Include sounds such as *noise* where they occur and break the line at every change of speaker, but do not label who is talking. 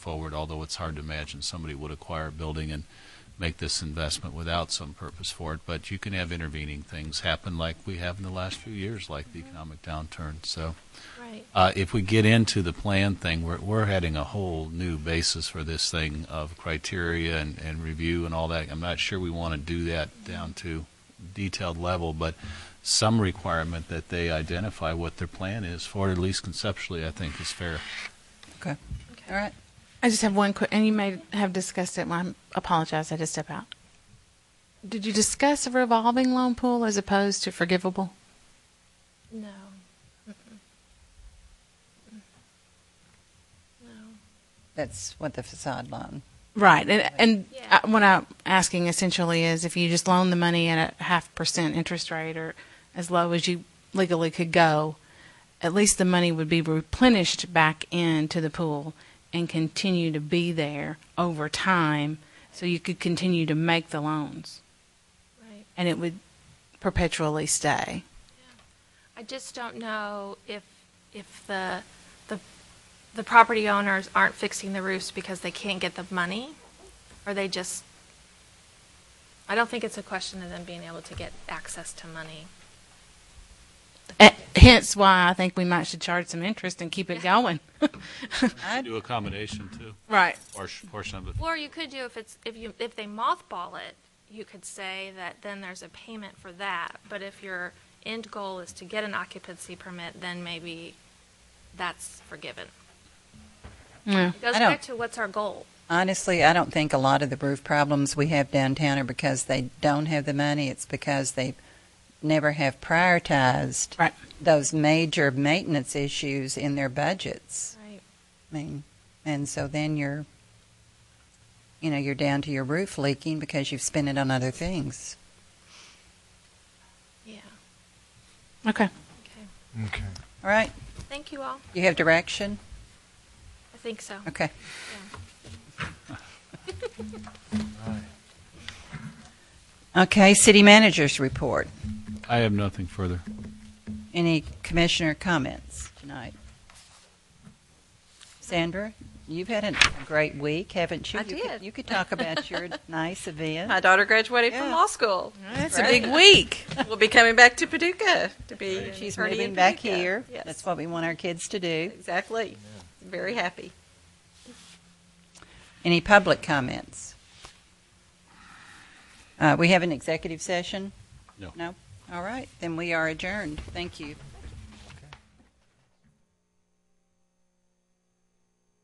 forward, although it's hard to imagine somebody would acquire a building and make this investment without some purpose for it. But you can have intervening things happen like we have in the last few years, like the economic downturn. So
Right.
uh, if we get into the plan thing, we're, we're heading a whole new basis for this thing of criteria and, and review and all that. I'm not sure we want to do that down to detailed level, but some requirement that they identify what their plan is for it, at least conceptually, I think is fair.
Okay. All right.
I just have one quick, and you may have discussed it. Well, I apologize. I had to step out. Did you discuss a revolving loan pool as opposed to forgivable?
No. No.
That's what the facade loan.
Right. And, and
Yeah.
I, what I'm asking essentially is if you just loan the money at a half percent interest rate or as low as you legally could go, at least the money would be replenished back into the pool and continue to be there over time so you could continue to make the loans
Right.
and it would perpetually stay.
I just don't know if, if the, the, the property owners aren't fixing the roofs because they can't get the money, or they just, I don't think it's a question of them being able to get access to money.
Eh, Hence why I think we might should charge some interest and keep it going. *laughs*
Do a combination too,
Right.
or portion of it.
Or you could do, if it's, if you, if they mothball it, you could say that then there's a payment for that, but if your end goal is to get an occupancy permit, then maybe that's forgiven.
Yeah.
It goes
I don't-
back to what's our goal.
Honestly, I don't think a lot of the roof problems we have downtown are because they don't have the money. It's because they never have prioritized
Right.
those major maintenance issues in their budgets.
Right.
I mean, and so then you're, you know, you're down to your roof leaking because you've spent it on other things.
Yeah,
Okay.
okay.
Okay.
All right.
Thank you all.
You have direction?
I think so.
Okay. *laughs* Okay, city managers report.
I have nothing further.
Any commissioner comments tonight? Sandra, you've had a great week, haven't you?
I
You could-
did.
You could talk about
*laughs*
your nice
My
event.
daughter graduated from
Yeah.
law school.
That's
a big
week.
We'll be coming back to Paducah
Mm-hmm.
to be.
She's
attorney
moving
in
back
Paducah.
here.
Yes,
That's what we want our kids to do.
exactly. Very happy.
Any public comments? Uh, We have an executive session?
No.
No? All right, then we are adjourned. Thank you.